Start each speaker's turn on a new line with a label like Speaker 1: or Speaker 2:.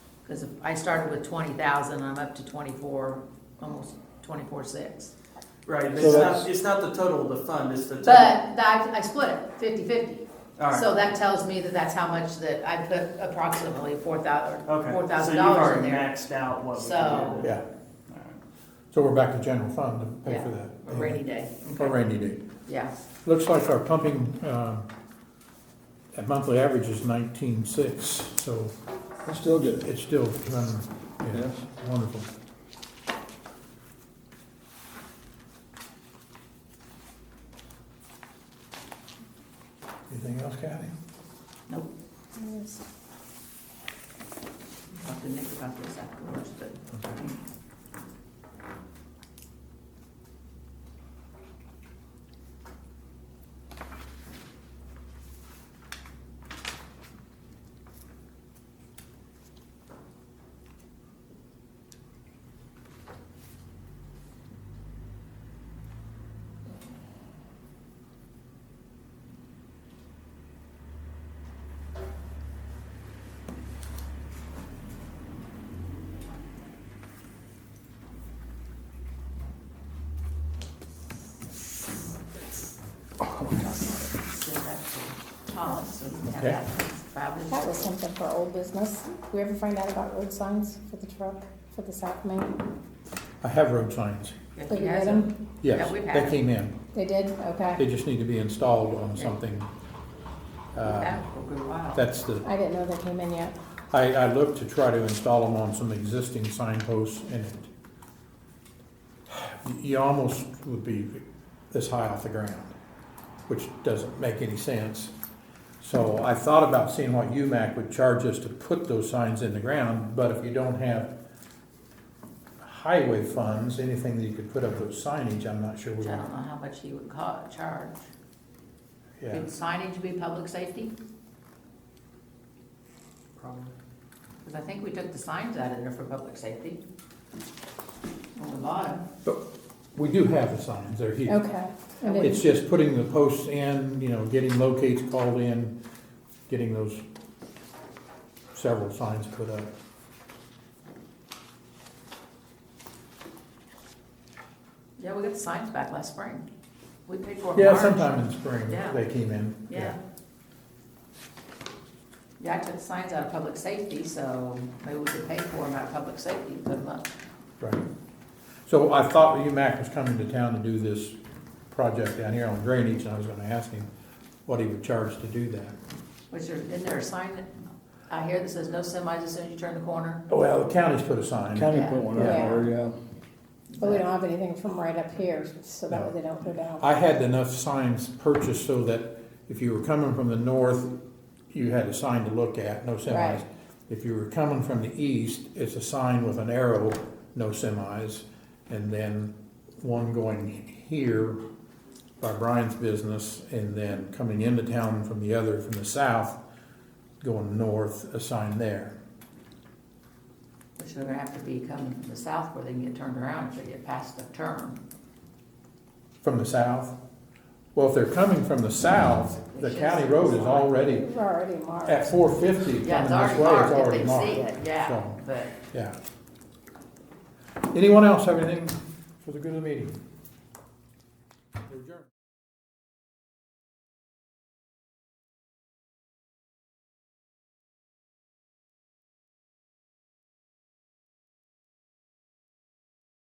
Speaker 1: Because I started with twenty thousand, I'm up to twenty-four, almost twenty-four six.
Speaker 2: Right, but
Speaker 3: So
Speaker 2: it's
Speaker 3: that's-
Speaker 2: not, it's not the total of the fund, it's the total.
Speaker 1: But that, I split it fifty-fifty.
Speaker 2: All right,
Speaker 1: So that tells me that that's how much that I put approximately four thousand,
Speaker 2: okay.
Speaker 1: four thousand
Speaker 2: So you've
Speaker 1: dollars in
Speaker 2: already
Speaker 1: there.
Speaker 2: maxed out what we
Speaker 1: So-
Speaker 2: can do.
Speaker 3: Yeah,
Speaker 2: All right.
Speaker 3: so we're back to general fund to pay
Speaker 1: Yeah,
Speaker 3: for that.
Speaker 1: A rainy day,
Speaker 3: For rainy day.
Speaker 1: yeah.
Speaker 3: Looks like our pumping, um, that monthly average is nineteen-six, so
Speaker 4: That's still good.
Speaker 3: it's still running, yeah,
Speaker 4: Yes.
Speaker 3: wonderful. Anything else, Kathy?
Speaker 1: Nope. I'll have to think about this afterwards, but
Speaker 3: Okay.
Speaker 1: send that to Tom, so we can have
Speaker 3: Okay.
Speaker 1: that filed.
Speaker 5: That was something for old business. We ever find out about road signs for the truck, for the South Main?
Speaker 3: I have road signs,
Speaker 1: If
Speaker 5: Did
Speaker 1: he
Speaker 5: you get
Speaker 1: has
Speaker 5: them?
Speaker 1: them,
Speaker 3: yes,
Speaker 1: Yeah, we've had
Speaker 3: they
Speaker 1: them.
Speaker 3: came in,
Speaker 5: They did? Okay.
Speaker 3: they just need to be installed on
Speaker 1: Yeah.
Speaker 3: something. Uh,
Speaker 1: that will be wild.
Speaker 3: That's the,
Speaker 5: I didn't know they came in yet.
Speaker 3: I, I looked to try to install them on some existing signposts and it, you almost would be this high off the ground, which doesn't make any sense. So I thought about seeing what UMAC would charge us to put those signs in the ground, but if you don't have highway funds, anything that you could put up with signage, I'm not sure we
Speaker 1: Which I
Speaker 3: want.
Speaker 1: don't know how much he would ca- charge.
Speaker 3: Yeah,
Speaker 1: Would signage be public safety? Probably. Because I think we took the signs out of there for public safety. On the bottom.
Speaker 3: but we do have the signs, they're here.
Speaker 5: Okay. I didn't-
Speaker 3: It's just putting the posts in, you know, getting locates called in, getting those several signs put up.
Speaker 1: Yeah, we got the signs back last spring. We paid for it. in
Speaker 3: Yeah,
Speaker 1: March.
Speaker 3: sometime in spring,
Speaker 1: Yeah.
Speaker 3: they came in.
Speaker 1: Yeah. Yeah, I took the signs out of public safety, so maybe we could pay for them out of public safety, put them up.
Speaker 3: Right. So I thought UMAC was coming to town to do this project down here on drainage, and I was gonna ask him what he would charge to do that.
Speaker 1: Which there, isn't there a sign that, I hear that says no semis as soon as you turn the corner?
Speaker 3: Well, the county's put a sign.
Speaker 4: County put one out
Speaker 5: Yeah.
Speaker 4: there, yeah.
Speaker 5: But we don't have anything from right up here, so that way
Speaker 3: No.
Speaker 5: they don't go down.
Speaker 3: I had enough signs purchased so that if you were coming from the north, you had a sign to look at, no semis.
Speaker 5: Right.
Speaker 3: If you were coming from the east, it's a sign with an arrow, no semis, and then one going here by Brian's business, and then coming into town from the other, from the south, going north, a sign there.
Speaker 1: Which they're gonna have to be coming from the south where they can get turned around if they get past the turn.
Speaker 3: From the south? Well, if they're coming from the south, the county road is already,
Speaker 5: We're already marked.
Speaker 3: at four fifty coming this way,
Speaker 1: Yeah,
Speaker 3: it's
Speaker 1: it's
Speaker 3: already
Speaker 1: already
Speaker 3: marked.
Speaker 1: marked, if they see it, yeah,
Speaker 3: So-
Speaker 1: but.
Speaker 3: Yeah. Anyone else have anything for the good of the meeting? We're adjourned.